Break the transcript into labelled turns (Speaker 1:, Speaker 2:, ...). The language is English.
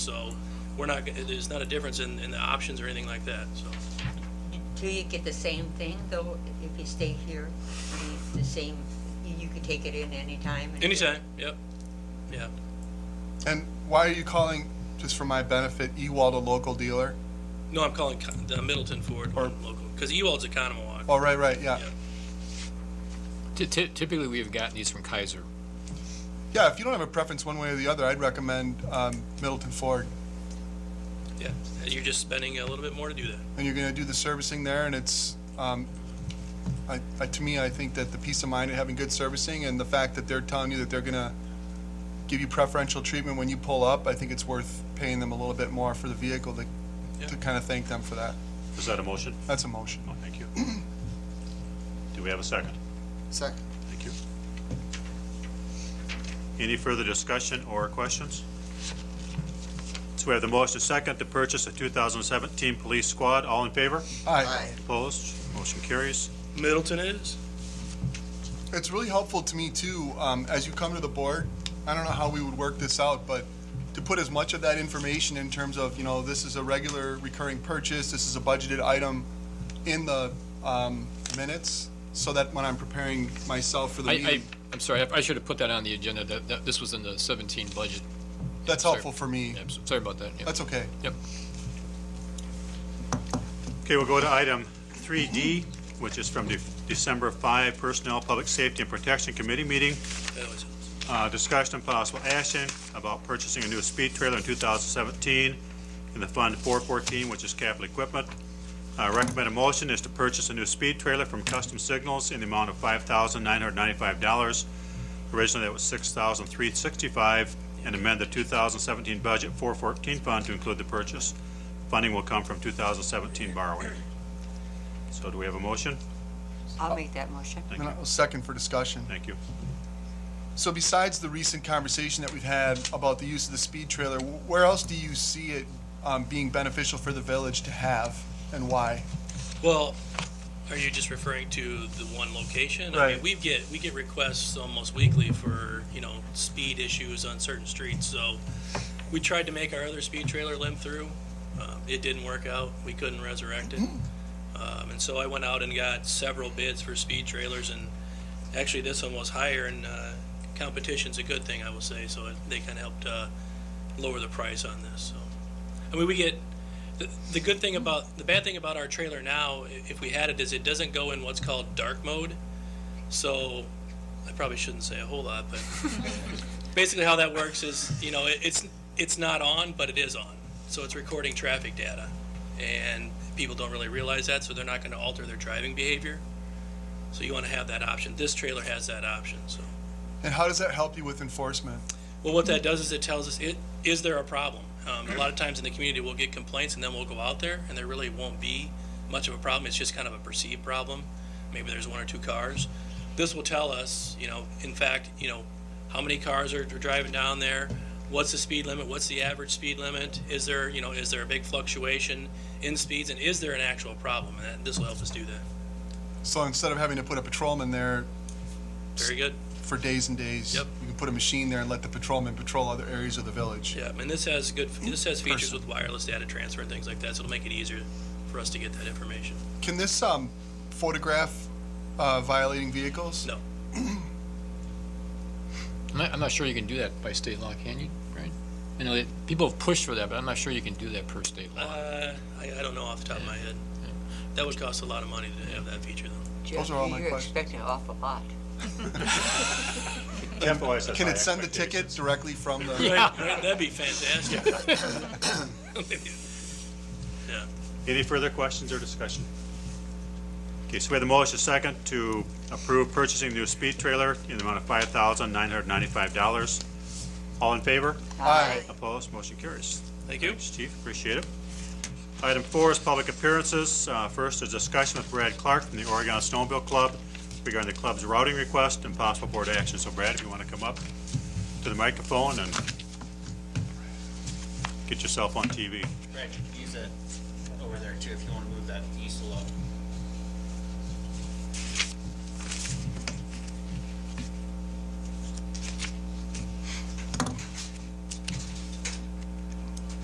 Speaker 1: So we're not, gonna- there's not a difference in, in the options or anything like that, so.
Speaker 2: Do you get the same thing though, if you stay here? The- The same, you you could take it in anytime? and-
Speaker 1: Anytime, yep, yeah.
Speaker 3: And why are you calling, just for my benefit, Ewald a local dealer?
Speaker 1: No, I'm calling Con- the Middleton Ford
Speaker 3: Or-
Speaker 1: local, because Ewald's a Conomowoc.
Speaker 3: Oh, right, right, yeah.
Speaker 1: Yeah.
Speaker 4: Ty- ty- Typically, we have gotten these from Kaiser.
Speaker 3: Yeah, if you don't have a preference one way or the other, I'd recommend um, Middleton Ford.
Speaker 1: Yeah, and you're just spending a little bit more to do that.
Speaker 3: And you're going to do the servicing there, and it's, um, I, I- to me, I think that the peace of mind of having good servicing and the fact that they're telling you that they're going to give you preferential treatment when you pull up, I think it's worth paying them a little bit more for the vehicle
Speaker 1: Yeah.
Speaker 3: to, to kind of thank them for that.
Speaker 5: Is that a motion?
Speaker 3: That's a motion.
Speaker 5: No, thank you. Do we have a second?
Speaker 3: Second.
Speaker 5: Thank you. Any further discussion or questions? So we have the motion to second to purchase a 2017 police squad. All in favor?
Speaker 3: Aye.
Speaker 5: Opposed? Motion carries.
Speaker 1: Middleton is?
Speaker 3: It's really helpful to me too, um, as you come to the board, I don't know how we would work this out, but to put as much of that information in terms of, you know, this is a regular recurring purchase, this is a budgeted item in the, um, minutes, so that when I'm preparing myself for the
Speaker 4: I, I,
Speaker 3: meeting,
Speaker 4: I'm sorry, I- I should have put that on the agenda, that, that this was in the 17 budget.
Speaker 3: that's
Speaker 4: sorry.
Speaker 3: helpful for me.
Speaker 4: Yeah, I'm so- Sorry about that. yeah.
Speaker 3: That's okay.
Speaker 4: Yep.
Speaker 5: Okay, we'll go to item 3D, which is from the December 5 Personnel, Public Safety, and Protection Committee meeting.
Speaker 1: That always helps.
Speaker 5: Uh, Discussion and possible action about purchasing a new speed trailer in 2017 in the Fund 414, which is capital equipment. Uh, Recommended motion is to purchase a new speed trailer from Custom Signals in the amount of $5,995. Originally, that was $6,365, and amend the 2017 budget 414 fund to include the purchase. Funding will come from 2017 borrowing. So do we have a motion?
Speaker 2: I'll make that motion.
Speaker 3: And I'll second for discussion.
Speaker 5: Thank you.
Speaker 3: So besides the recent conversation that we've had about the use of the speed trailer, wh- where else do you see it, um, being beneficial for the village to have, and why?
Speaker 1: Well, are you just referring to the one location? I mean,
Speaker 3: Right.
Speaker 1: we get, we get requests almost weekly for, you know, speed issues on certain streets, so we tried to make our other speed trailer limp through. Uh, It didn't work out. We couldn't resurrect it. Um, And so I went out and got several bids for speed trailers, and actually, this one was higher, and uh, competition's a good thing, I will say, so it- they kind of helped uh, lower the price on this, so. I mean, we get, the- the good thing about, the bad thing about our trailer now, i- if we had it, is it doesn't go in what's called dark mode. So, I probably shouldn't say a whole lot, but basically how that works is, you know, it- it's, it's not on, but it is on. So it's recording traffic data. And people don't really realize that, so they're not going to alter their driving behavior. So you want to have that option. This trailer has that option, so.
Speaker 3: And how does that help you with enforcement?
Speaker 1: Well, what that does is it tells us, it, is there a problem? Um, a lot of times in the community, we'll get complaints and then we'll go out there and there really won't be much of a problem. It's just kind of a perceived problem. Maybe there's one or two cars. This will tell us, you know, in fact, you know, how many cars are, are driving down there? What's the speed limit? What's the average speed limit? Is there, you know, is there a big fluctuation in speeds and is there an actual problem? And that, this will help us do that.
Speaker 3: So instead of having to put a patrolman there
Speaker 1: Very good.
Speaker 3: for days and days,
Speaker 1: Yep.
Speaker 3: you can put a machine there and let the patrolman patrol other areas of the village.
Speaker 1: Yeah, and this has good, this has features
Speaker 3: Person.
Speaker 1: with wireless data transfer and things like that, so it'll make it easier for us to get that information.
Speaker 3: Can this um, photograph uh, violating vehicles?
Speaker 1: No.
Speaker 4: I'm not, I'm not sure you can do that by state law, can you, Brian? I know that people have pushed for that, but I'm not sure you can do that per state law.
Speaker 1: Uh, I, I don't know off the top of my head. That would cost a lot of money to have that feature though.
Speaker 2: Jeff,
Speaker 3: are all my
Speaker 2: You're
Speaker 3: questions.
Speaker 2: expecting an awful lot.
Speaker 5: Jeff always has
Speaker 3: Can
Speaker 5: high
Speaker 3: it send the
Speaker 5: expectations.
Speaker 3: ticket directly from the?
Speaker 1: Right, right, That'd be fantastic. Yeah,
Speaker 5: Any further questions or discussion? Okay, so we have the motion second to approve purchasing new speed trailer in the amount of five thousand nine hundred ninety-five dollars. All in favor?
Speaker 2: Uh,
Speaker 3: Aye.
Speaker 5: Opposed? Motion carries.
Speaker 1: thank you.
Speaker 5: Thanks, Chief, appreciate it. Item four is public appearances. Uh, First, a discussion with Brad Clark from the Oregon Snowmobile Club regarding the club's routing request and possible board action. So Brad, if you want to come up to the microphone and get yourself on TV.
Speaker 6: Right, use that over there too, if you wanna move that easel up.